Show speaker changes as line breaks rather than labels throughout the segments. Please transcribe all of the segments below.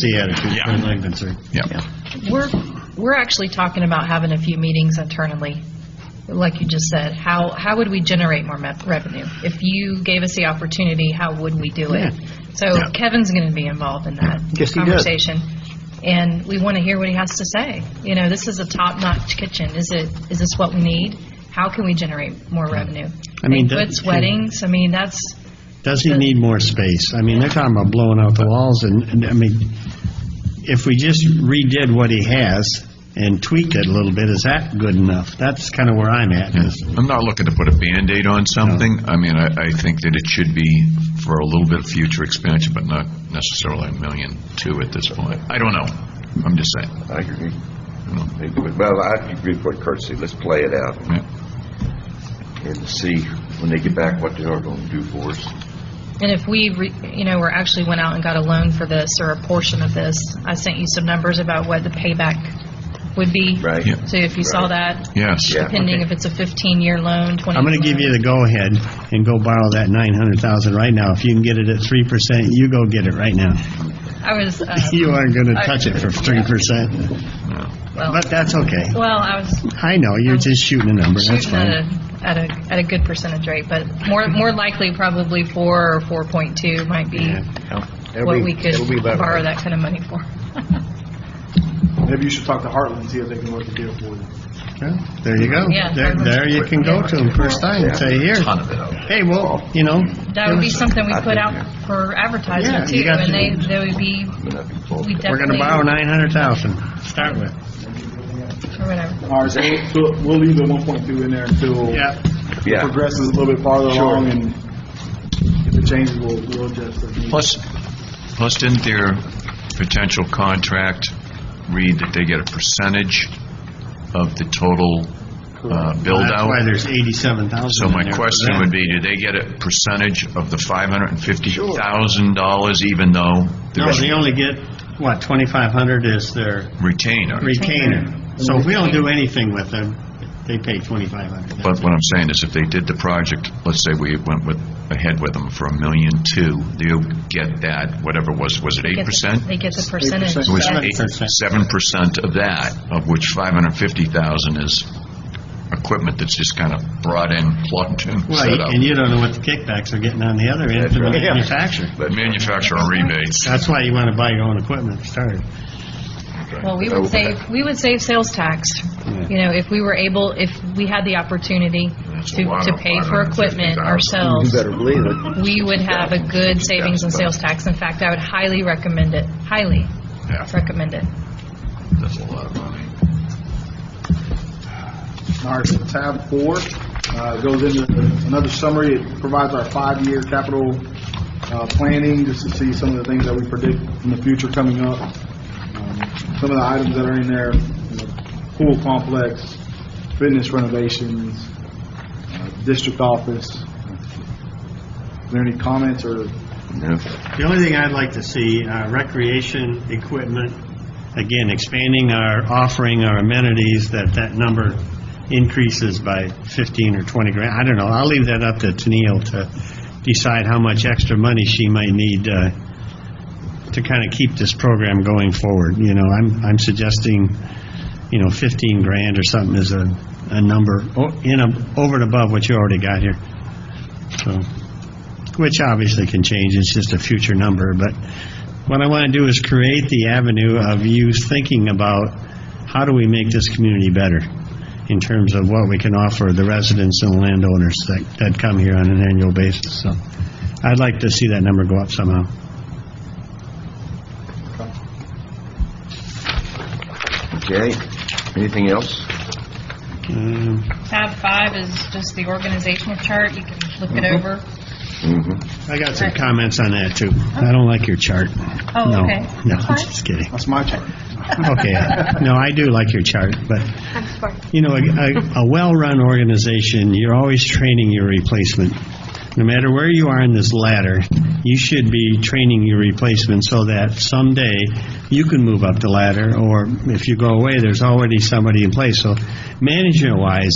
the attitude, as far as I'm concerned.
Yeah.
We're, we're actually talking about having a few meetings internally, like you just said. How, how would we generate more me- revenue? If you gave us the opportunity, how would we do it? So
Yeah.
Kevin's going to be involved in that
Yes, he does.
conversation. And we want to hear what he has to say. You know, this is a top-notch kitchen. Is it, is this what we need? How can we generate more revenue?
I mean, that-
Banquets, weddings, I mean, that's,
Does he need more space? I mean, they're talking about blowing out the walls, and, and, I mean, if we just redid what he has and tweaked it a little bit, is that good enough? That's kind of where I'm at, is
I'm not looking to put a Band-Aid on something. I mean, I, I think that it should be for a little bit of future expansion, but not necessarily a million two at this point. I don't know. I'm just saying.
I agree. Well, I agree with what Kurt said, let's play it out
Yeah.
and see when they get back what they are gonna do for us.
And if we, re- you know, or actually went out and got a loan for this or a portion of this, I sent you some numbers about what the payback would be.
Right. Yeah.
So if you saw that,
Yes.
Yeah.
depending if it's a 15-year loan, 20.
I'm going to give you the go-ahead and go borrow that 900,000 right now. If you can get it at 3%, you go get it right now.
I was, uh,
You aren't going to touch it for 3%,
well,
but that's okay.
well, I was
I know, you're just shooting a number, that's
shooting at
fine.
a, at a, at a good percentage rate, but more, more likely probably 4 or 4.2 might be what we could borrow that kind of money for.
Maybe you should talk to Heartland, see if they can work a deal for you.
Yeah, There you go.
Yeah.
There, there you can go to him first time, and say, here,
Ton of it out.
hey, well, you know.
That would be something we put out for
Yeah,
advertising
you
too,
got
and
to-
they, they would be,
I mean, I'd be full.
we definitely.
We're going to borrow 900,000, start with.
Or whatever.
All right, so we'll- so we'll leave the 1.2 in there until it
Yeah.
progresses a little bit farther along, and if it changes, we'll we'll adjust. as needed.
Plus, plus didn't their potential contract read that they get a percentage of the total uh,
That's why
build-out?
there's 87,000
So
in
my
there for
question
that.
would be, do they get a percentage of the $550,000 even though
No,
there's
they only get, what, 2,500 is their
retainer?
retainer. So if we don't do anything with them, they pay 2,500.
But what I'm saying is, if they did the project, let's say we went with, ahead with them for a million two, they'll get that, whatever it was, was it eight
get the-
percent?
They get the percentage.
It was
yeah.
eight-
7%.
7% of that, of which 550,000 is equipment that's just kind of brought in, plugged in, set
Well,
up.
and you don't know what the kickbacks are getting on the other end for the
That's right.
manufacturer.
Manufacturer rebates.
That's why you want to buy your own equipment to start.
Well, we would save, we would save sales tax, you know, if we were able, if we had the opportunity
That's a
to,
lot
to
of
pay for equipment
550,000.
ourselves,
believe it.
we would have a good savings in sales tax. In fact, I would highly recommend it, highly
Yeah,
recommend it.
that's a lot of money.
All right, so tab four uh, goes into another summary. It provides our five-year capital uh, planning, just to see some of the things that we predict in the future coming up. Um, Some of the items that are in there, you know, pool complex, fitness renovations, uh, district office. Is there any comments or
The only thing I'd like to see, uh, recreation equipment, again, expanding our, offering our amenities, that that number increases by 15 or 20 grand. I don't know, I'll leave that up to Tennille to decide how much extra money she might need uh, to kind of keep this program going forward. You know, I'm, I'm suggesting, you know, 15 grand or something is a, a number, o- in a, over and above what you already got here. So, which obviously can change, it's just a future number, but what I want to do is create the avenue of you thinking about, how do we make this community better in terms of what we can offer the residents and landowners that, that come here on an annual basis, so I'd like to see that number go up somehow.
Okay, anything else?
Um,
Tab five is just the organizational chart. You can flip it over.
Mm-hmm.
I got some comments on that, too. I don't like your chart.
Oh,
No,
okay.
No, I'm
That's fine.
just kidding.
that's my turn.
Okay. No, I do like your chart, but, you know, a- a, a well-run organization, you're always training your replacement. No matter where you are in this ladder, you should be training your replacement so that someday you can move up the ladder, or if you go away, there's already somebody in place. So management-wise,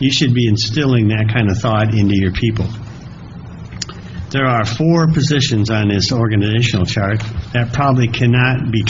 you should be instilling that kind of thought into your people. The there are four positions on this organizational chart that probably cannot be